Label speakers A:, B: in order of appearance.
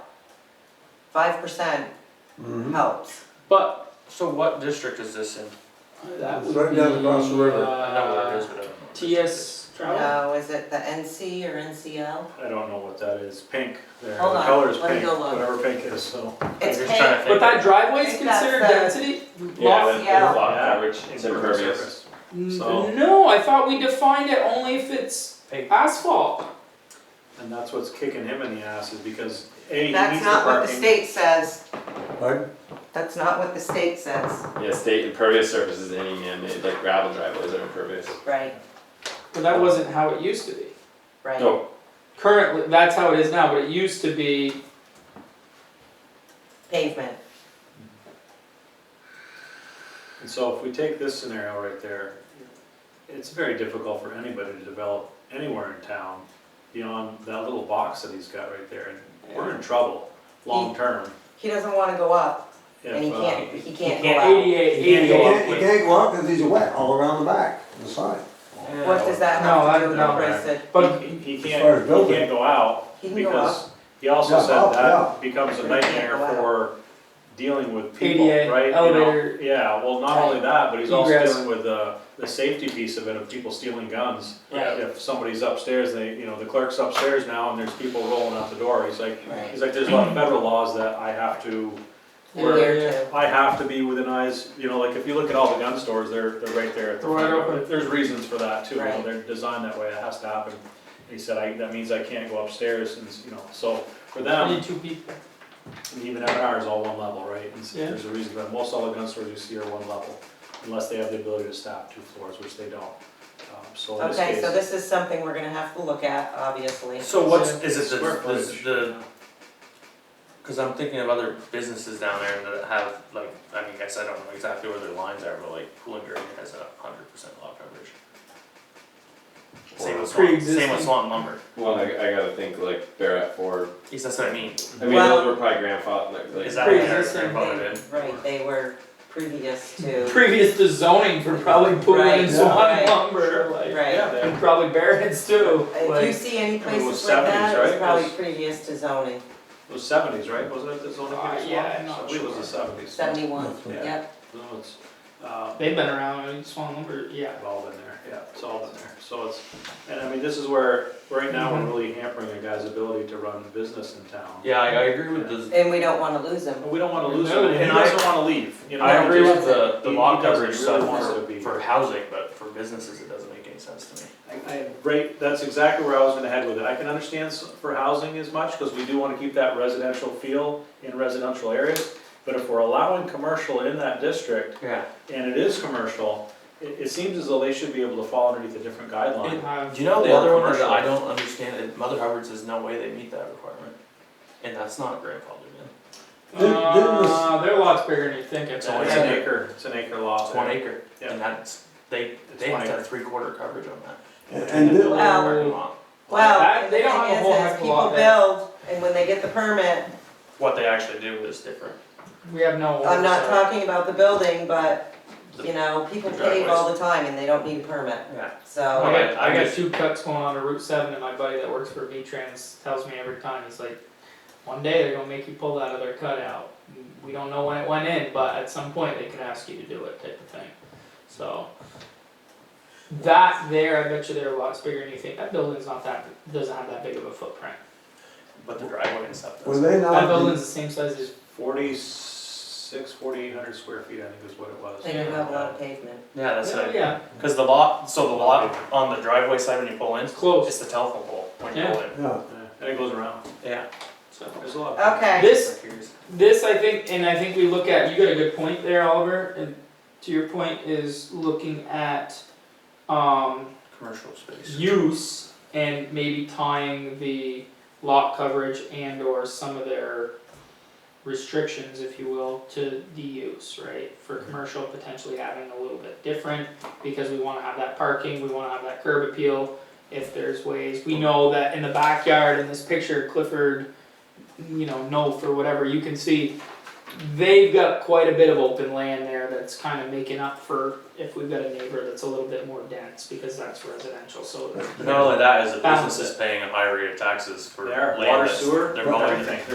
A: five percent
B: Mhm.
A: helps.
C: But, so what district is this in?
D: That
B: It's
D: would
B: right down
D: be,
B: across the river.
C: I know what it is,
D: uh,
C: but I don't know. what district it is.
D: TS travel?
A: No, is it the NC or NCL?
E: I don't know what that is, pink, there, the
A: Hold on,
E: color is
A: let me
E: pink,
A: go look.
E: whatever pink is, so.
A: It's
C: just trying
A: paid,
C: to
D: But that driveway is
A: I think that's
D: considered
A: the-
D: density?
F: Yeah, with- with
A: Yeah.
F: lot
E: Yeah.
F: coverage, it's
E: Impervious
F: impervious.
E: surface.
F: So-
D: N- No, I thought we defined it only if it's
C: Paved.
D: asphalt.
E: And that's what's kicking him in the ass is because, A, he needs
A: that's
E: the
A: not what the
E: parking.
A: state says,
B: Pardon?
A: that's not what the state says,
F: Yeah, state impervious surface is any man-made, like gravel driveways are impervious.
A: right,
D: But that wasn't how it used to be.
A: right.
F: No,
D: Currently, that's how it is now, but it used to be,
A: Pavement,
E: And so if we take this scenario right there, it's very difficult for anybody to develop anywhere in town beyond that little box that he's got right there, and we're in trouble, long-term.
A: he doesn't wanna go up,
E: if,
A: and he
E: uh,
A: can't, he can't
C: can't
A: go
D: ADA,
B: You
C: go
D: ADA.
C: up
B: can't, you
C: with-
B: can't go up because these are wet all around the back, the side.
A: up. What does that
D: No,
A: have to
D: I-
A: do with
D: no.
A: Bristol?
D: But
E: He he
B: As far as
E: can't, he
B: building.
E: can't go out,
A: He can go up.
E: because he also
B: Yeah,
E: said
B: up,
E: that becomes a
A: He can't
E: nightmare
A: go out.
E: for dealing with people, right?
D: ADA,
E: You know,
D: elevator.
E: Yeah, well, not only that, but he's also
D: Egress.
E: dealing with the, the safety piece of it, of people stealing guns.
A: Right.
E: If somebody's upstairs, they, you know, the clerk's upstairs now, and there's people rolling out the door, he's like,
A: Right.
E: he's like, there's a lot of federal laws that I have to,
A: in
D: Where-
A: here too.
E: I have to be within eyes, you know, like, if you look at all the gun stores, they're, they're right there at the
D: Right
E: front.
D: open.
E: There's reasons for that too, you know,
A: Right.
E: they're designed that way, it has to happen. He said, I, that means I can't go upstairs, and, you know, so, for them,
D: twenty-two people.
E: and even M&R is all one level, right? And s-
D: Yeah.
E: There's a reason, but most all the gun stores you see are one level, unless they have the ability to staff two floors, which they don't. Um, So in this
A: Okay, so
E: case,
A: this is something we're gonna have to look at, obviously.
C: So what's, is it the,
E: Square footage.
C: the, the, cause I'm thinking of other businesses down there that have, like, I mean, I guess I don't know exactly where their lines are, but like, Pool and Green has a hundred percent lot coverage. Same with Swan, same
D: Pre-existing.
C: with Swan Lumber,
F: well, I, I gotta think like Barrett Ford,
C: at least that's what I mean,
F: I mean,
A: Well-
F: those were probably grandfathered, like, like.
C: is that what they're,
D: Pre-existing.
C: they're voted in?
A: Right, they were previous to,
D: Previous to zoning for probably putting
A: Right,
D: in Swan
A: right.
D: lumber, like,
A: right.
E: yeah, they
D: and probably Barrett's too,
A: If you
D: like.
A: see any
E: it
A: places
E: was
A: like
E: 70s,
A: that, it's
E: right?
A: probably
E: Those-
A: previous to zoning,
E: it was seventies, right? Wasn't it the zoning
D: Uh,
E: case?
D: yeah, I'm not
E: I believe it was the
D: sure.
E: seventies.
A: seventy-one,
E: Yeah.
A: yep,
E: No, it's, uh,
D: They've been around, I mean, Swan lumber, yeah.
E: I've all been there, yeah, it's all been there. So it's, and I mean, this is where, right now, we're really hampering a guy's ability to run a business in town.
C: Mhm. Yeah, I, I agree with the,
A: and we don't wanna lose them.
E: And we don't wanna lose
D: No,
E: him, and he
C: and I-
E: doesn't wanna leave, you know?
C: I
E: he
C: agree
E: just-
C: with the, the
E: he-
C: lot
E: he doesn't,
C: coverage
E: he really
C: stuff
E: wants to
C: for,
E: be
C: for housing, but for businesses, it doesn't make any sense to me.
E: I- I- Right, that's exactly where I was gonna head with it. I can understand s- for housing as much, because we do wanna keep that residential feel in residential areas. But if we're allowing commercial in that district,
C: Yeah.
E: and it is commercial, it, it seems as though they should be able to fall underneath a different guideline.
D: Uh,
C: Do you know the
E: Or
C: other one that
E: commercial.
C: I don't understand, is Mother Hubbard's, there's no way they meet that requirement, and that's not grandfathered in.
B: Didn't- didn't this-
D: Uh, they're lots bigger than you think, it's
E: It's
C: Yeah.
E: only
D: always.
E: an acre, it's an acre lot.
C: It's one acre,
E: Yeah.
C: and that's, they,
E: It's
C: they
E: one
C: have to
E: acre.
C: have three quarter coverage on that.
B: And- And did-
A: Well-
C: Parking lot.
A: Well,
D: That-
A: and the
D: they don't have a
A: thing
D: whole
A: is, as
D: heck of a
A: people
D: lot
A: build, and when they get the permit,
C: What they actually do is different.
D: We have no oversight.
A: I'm not talking about the building, but, you know, people
C: The
A: pave all the time and they don't need a permit,
C: Yeah.
D: I
A: so.
C: Okay,
D: got,
C: I
D: I got
C: just-
D: two cuts going on to Route seven and my buddy that works for V-Trans tells me every time, he's like, one day they're gonna make you pull that other cut out. We don't know when it went in, but at some point they could ask you to do it type of thing, so. That there, I bet you there are lots bigger than you think, that building's not that, doesn't have that big of a footprint.
C: But the driveway and stuff
B: Were
C: does.
B: they
D: That
B: not,
D: building's the same size as,
E: Forty-six, forty-eight hundred square feet, I think is what it was.
A: They do have a lot of pavement.
C: Yeah, that's it.
D: yeah,
C: Cause the lot, so the lot on the driveway side when you pull in,
D: it's close,
C: it's the telephone pole when you pull in.
B: yeah,
E: Yeah, And it goes around,
C: Yeah.
D: so.
E: there's a lot. of-
A: Okay,
D: This, This, I think, and I think we look at, you got a good point there, Oliver, and to your point is looking at, um,
C: Commercial space.
D: use and maybe tying the lot coverage and or some of their restrictions, if you will, to the use, right? For commercial, potentially having a little bit different, because we wanna have that parking, we wanna have that curb appeal, if there's ways, we know that in the backyard, in this picture, Clifford, you know, Noth or whatever, you can see, they've got quite a bit of open land there that's kind of making up for if we've got a neighbor that's a little bit more dense, because that's residential, so
C: Not only that, is the
D: Balance
C: business is paying a higher rate of taxes for
E: There,
C: land
E: water,
C: that's-
E: sewer,
C: They're mowing the
E: everything.